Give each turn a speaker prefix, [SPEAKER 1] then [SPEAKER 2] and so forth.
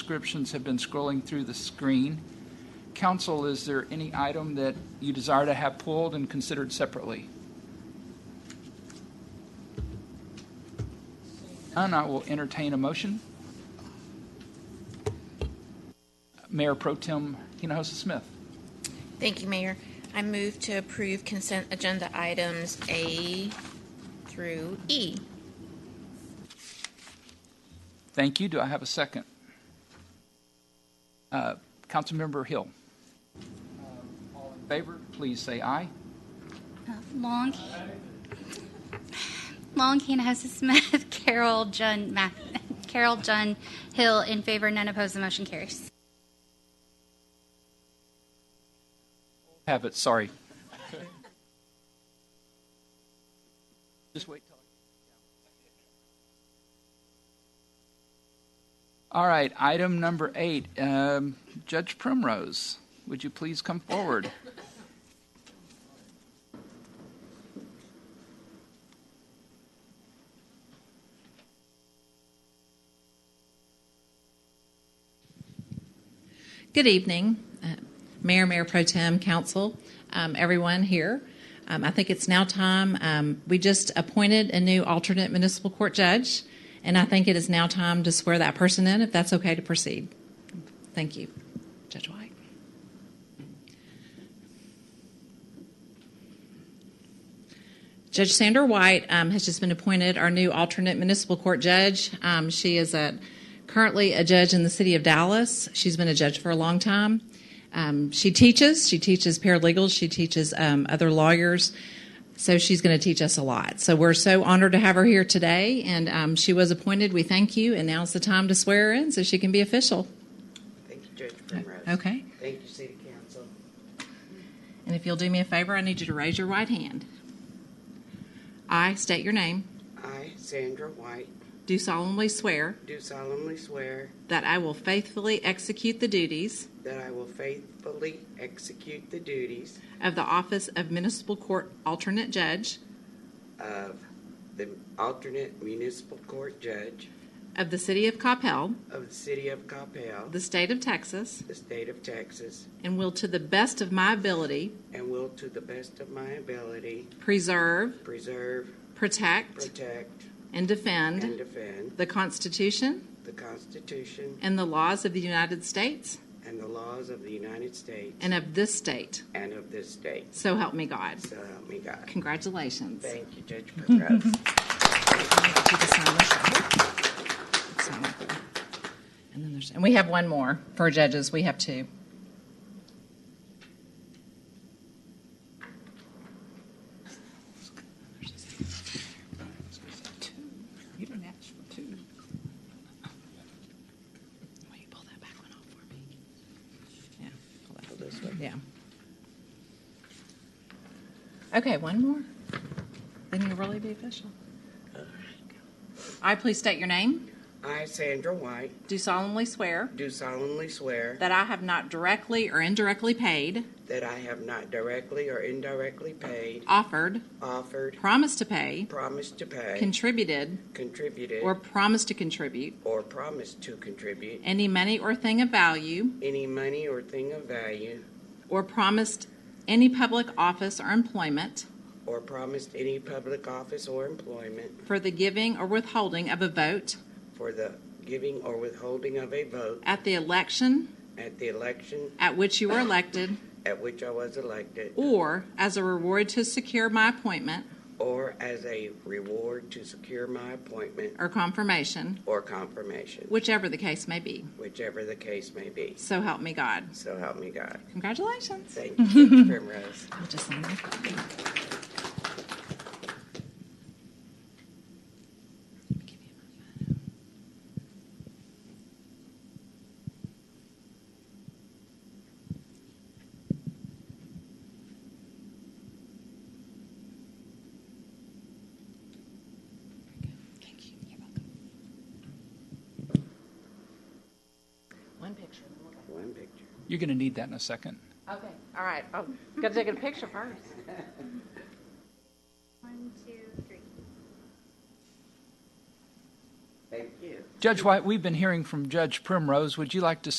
[SPEAKER 1] descriptions have been scrolling through the screen. Council, is there any item that you desire to have pulled and considered separately? None, I will entertain a motion. Mayor Pro Tem Hinojosa Smith.
[SPEAKER 2] Thank you, Mayor. I move to approve consent agenda items A through E.
[SPEAKER 1] Thank you. Do I have a second? Uh, Councilmember Hill. Um, All in favor, please say aye.
[SPEAKER 3] Long. Long, Hannah Smith, Carol, Jun, Math, Carol, Jun, Hill, in favor, none opposed, the motion carries.
[SPEAKER 1] Have it, sorry. Just wait till. I- All right, item number eight, um, Judge Primrose, would you please come forward?
[SPEAKER 4] Good evening, uh, Mayor, Mayor Pro Tem, Council, um, everyone here. Um, I think it's now time. Um, we just appointed a new alternate municipal court judge, and I think it is now time to swear that person in, if that's okay to proceed. Thank you, Judge White. Judge Sandra White um, has just been appointed our new alternate municipal court judge. Um, she is a, currently a judge in the city of Dallas. She's been a judge for a long time. Um, she teaches. She teaches paralegals. She teaches um, other lawyers. So she's going to teach us a lot. So we're so honored to have her here today. And um, she was appointed. We thank you. And now's the time to swear her in so she can be official.
[SPEAKER 5] Thank you, Judge Primrose.
[SPEAKER 4] Uh, Okay.
[SPEAKER 5] Thank you, City Council.
[SPEAKER 4] And if you'll do me a favor, I need you to raise your right hand. I state your name.
[SPEAKER 5] I, Sandra White,
[SPEAKER 4] Do solemnly swear.
[SPEAKER 5] do solemnly swear
[SPEAKER 4] That I will faithfully execute the duties
[SPEAKER 5] that I will faithfully execute the duties
[SPEAKER 4] of the Office of Municipal Court Alternate Judge
[SPEAKER 5] of the alternate municipal court judge
[SPEAKER 4] of the City of Coppell,
[SPEAKER 5] of the City of Coppell,
[SPEAKER 4] the State of Texas,
[SPEAKER 5] the state of Texas,
[SPEAKER 4] and will to the best of my ability
[SPEAKER 5] and will, to the best of my ability,
[SPEAKER 4] preserve,
[SPEAKER 5] preserve,
[SPEAKER 4] protect,
[SPEAKER 5] protect,
[SPEAKER 4] and
[SPEAKER 5] and
[SPEAKER 4] defend
[SPEAKER 5] defend
[SPEAKER 4] the Constitution
[SPEAKER 5] the Constitution
[SPEAKER 4] and the laws of the United States
[SPEAKER 5] and the laws of the United States
[SPEAKER 4] and of this state.
[SPEAKER 5] and of this state.
[SPEAKER 4] So help me God.
[SPEAKER 5] So help me God.
[SPEAKER 4] Congratulations.
[SPEAKER 5] Thank you, Judge Primrose.
[SPEAKER 4] And then there's, and we have one more for judges. We have two.
[SPEAKER 1] You didn't ask for two.
[SPEAKER 4] Will you pull that back one off for me? Yeah. pull that- Yeah. Okay, one more. Then you'll really be official. I please state your name.
[SPEAKER 5] I, Sandra White,
[SPEAKER 4] Do solemnly swear
[SPEAKER 5] do solemnly swear
[SPEAKER 4] that I have not directly or indirectly paid,
[SPEAKER 5] that I have not directly or indirectly paid,
[SPEAKER 4] offered,
[SPEAKER 5] offered,
[SPEAKER 4] promised to pay,
[SPEAKER 5] promised to pay,
[SPEAKER 4] contributed,
[SPEAKER 5] contributed,
[SPEAKER 4] or promised to contribute
[SPEAKER 5] or promised to contribute
[SPEAKER 4] any money or thing of value,
[SPEAKER 5] any money or thing of value,
[SPEAKER 4] or promised any public office or employment
[SPEAKER 5] or promised any public office or employment
[SPEAKER 4] for the giving or withholding of a vote
[SPEAKER 5] for the giving or withholding of a vote
[SPEAKER 4] at the election
[SPEAKER 5] at the election
[SPEAKER 4] at which you were elected,
[SPEAKER 5] at which I was elected,
[SPEAKER 4] or as a reward to secure my appointment
[SPEAKER 5] or as a reward to secure my appointment
[SPEAKER 4] or confirmation,
[SPEAKER 5] or confirmation,
[SPEAKER 4] whichever the case may be.
[SPEAKER 5] whichever the case may be.
[SPEAKER 4] So help me God.
[SPEAKER 5] So help me God.
[SPEAKER 4] Congratulations.
[SPEAKER 5] Thank you, Judge Primrose.
[SPEAKER 4] I'll just sign that. Thank you. You're welcome. One picture.
[SPEAKER 5] One picture.
[SPEAKER 1] You're going to need that in a second.
[SPEAKER 4] Okay, all right. I'm gonna take a picture first.
[SPEAKER 3] One, two, three.
[SPEAKER 5] Thank you.
[SPEAKER 1] Judge White, we've been hearing from Judge Primrose. Would you like to